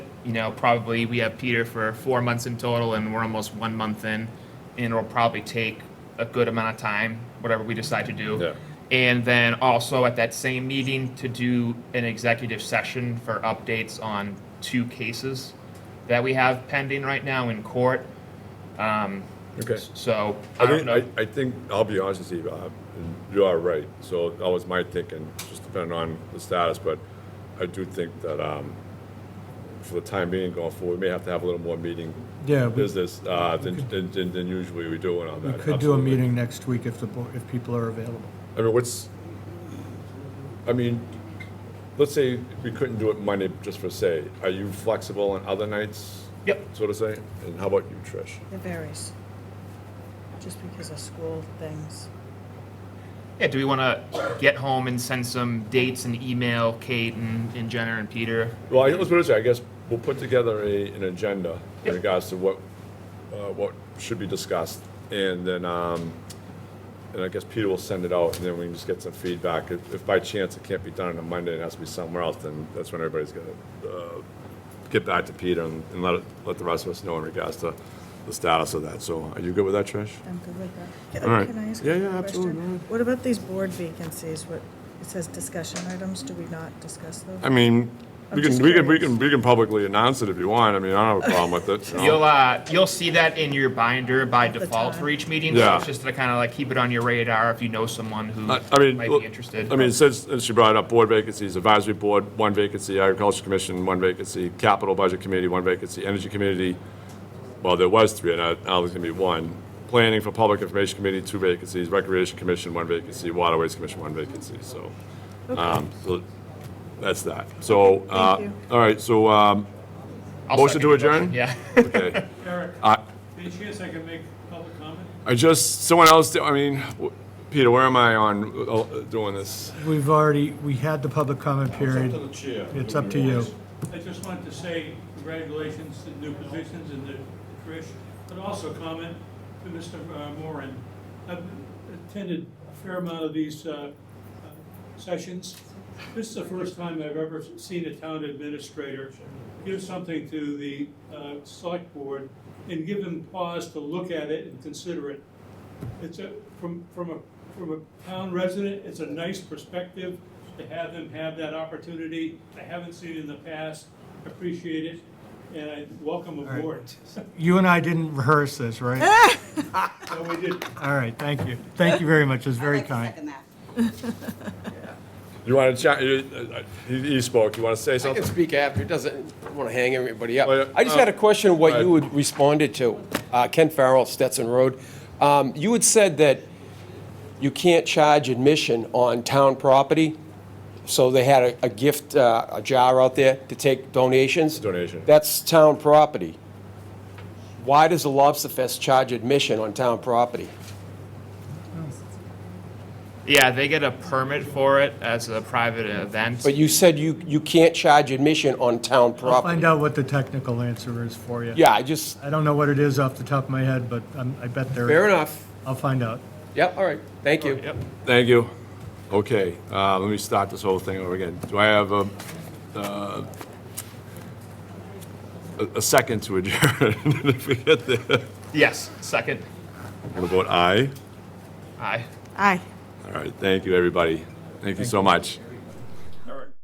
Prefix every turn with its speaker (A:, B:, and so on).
A: you know, probably we have Peter for four months in total, and we're almost one month in, and it'll probably take a good amount of time, whatever we decide to do.
B: Yeah.
A: And then also at that same meeting to do an executive session for updates on two cases that we have pending right now in court. Um,
B: Okay.
A: So I
B: I
A: don't
B: think, I,
A: know.
B: I think, I'll be honest with you, Bob, and you are right. So that was my thinking, just depending on the status, but I do think that, um, for the time being going forward, we may have to have a little more meeting
C: Yeah, we-
B: business, uh, than, than, than- than usually we do and all
C: We
B: that.
C: could do a
B: absolutely.
C: meeting next week if the, bo- if people are available.
B: I mean, what's, I mean, let's say we couldn't do it Monday, just for say, are you flexible on other nights?
A: Yep.
B: So to say, and how about you, Trish?
D: It varies, just because of school things.
A: Yeah, do we want to get home and send some dates and email Kate and, and Jenner and Peter?
B: Well, I- let's put it this way, I guess we'll put together a, an agenda in
A: Yep.
B: regards to what, uh, what should be discussed, and then, um, and I guess Peter will send it out, and then we can just get some feedback. If, if by chance it can't be done on a Monday, and it has to be somewhere else, then that's when everybody's gonna, uh, get back to Peter and, and let, it- let the rest of us know in regards to the status of that. So are you good with that, Trish?
D: I'm good with that.
B: All right.
D: Can I ask
B: Yeah,
D: a
B: yeah,
D: question?
B: absolutely, go ahead.
D: What about these board vacancies? What, it says discussion items, do we not discuss those?
B: I mean,
D: I'm
B: we can,
D: just
B: we can, we
D: curious.
B: can, we can publicly announce it if you want, I mean, I don't have a problem with it. you know.
A: You'll uh, you'll see that in your binder by
D: the
A: default
D: time.
A: for each meeting.
B: Yeah.
A: So it's just to kind of like keep it on your radar if you know someone who
B: I I mean,
A: might
B: look,
A: be interested.
B: I mean, since, since you brought up board vacancies, advisory board, one vacancy, agriculture commission, one vacancy, capital budget committee, one vacancy, energy committee, well, there was three, and now now there's gonna be one. Planning for public information committee, two vacancies, recreation commission, one vacancy, waterways commission, one vacancy, so. um, So, that's that. So, uh,
D: Thank you.
B: all right, so, um,
A: I'll
B: motion to
A: second the motion.
B: adjourn?
A: Yeah.
B: okay.
E: Eric,
B: Uh,
E: any chance I can make public comment?
B: I just, someone else, I mean, w- Peter, where am I on uh, doing this?
C: We've already, we had the public comment period.
F: chair.
C: It's up to you.
E: I just wanted to say congratulations to new positions and to Trish, but also comment to Mr. Moran. I've attended a fair amount of these uh, uh, sessions. This is the first time I've ever seen a town administrator give something to the uh, select board and give them pause to look at it and consider it. It's a, from, from a, from a town resident, it's a nice perspective to have them have that opportunity. I haven't seen it in the past, appreciate it, and I welcome aboard.
C: You and I didn't rehearse this, right?
E: So we did,
C: All right, thank you. Thank you very much. It was very
G: I'd like to
C: kind.
G: second that.
B: You want to chat, you- uh, he he spoke, you want to say
F: I
B: something?
F: can speak after, it doesn't want to hang everybody up.
B: Oh, yeah.
F: I just had a question,
B: Go
F: what
B: ahead.
F: you had responded to, Uh, Ken Farrell, Stetson Road. Um, You had said that you can't charge admission on town property, so they had a- a gift, uh, a jar out there to take donations?
B: Donation.
F: That's town property. Why does the Lobster Fest charge admission on town property?
A: yeah, they get a permit for it as a private event.
F: But you said you, you can't charge admission on town property.
C: I'll find out what the technical answer is for you.
F: Yeah, I just,
C: I don't know what it is off the top of my head, but I'm- I bet there.
F: fair enough.
C: I'll find out.
F: Yep, all right, thank you.
A: yep.
B: Thank you. Okay, uh, let me start this whole thing over again. Do I have a, uh, a- a second to adjourn? If we get there, I'm
A: Yes. Second.
B: going to vote aye.
A: Aye.
D: Aye.
B: All right, thank you, everybody. Thank you so much.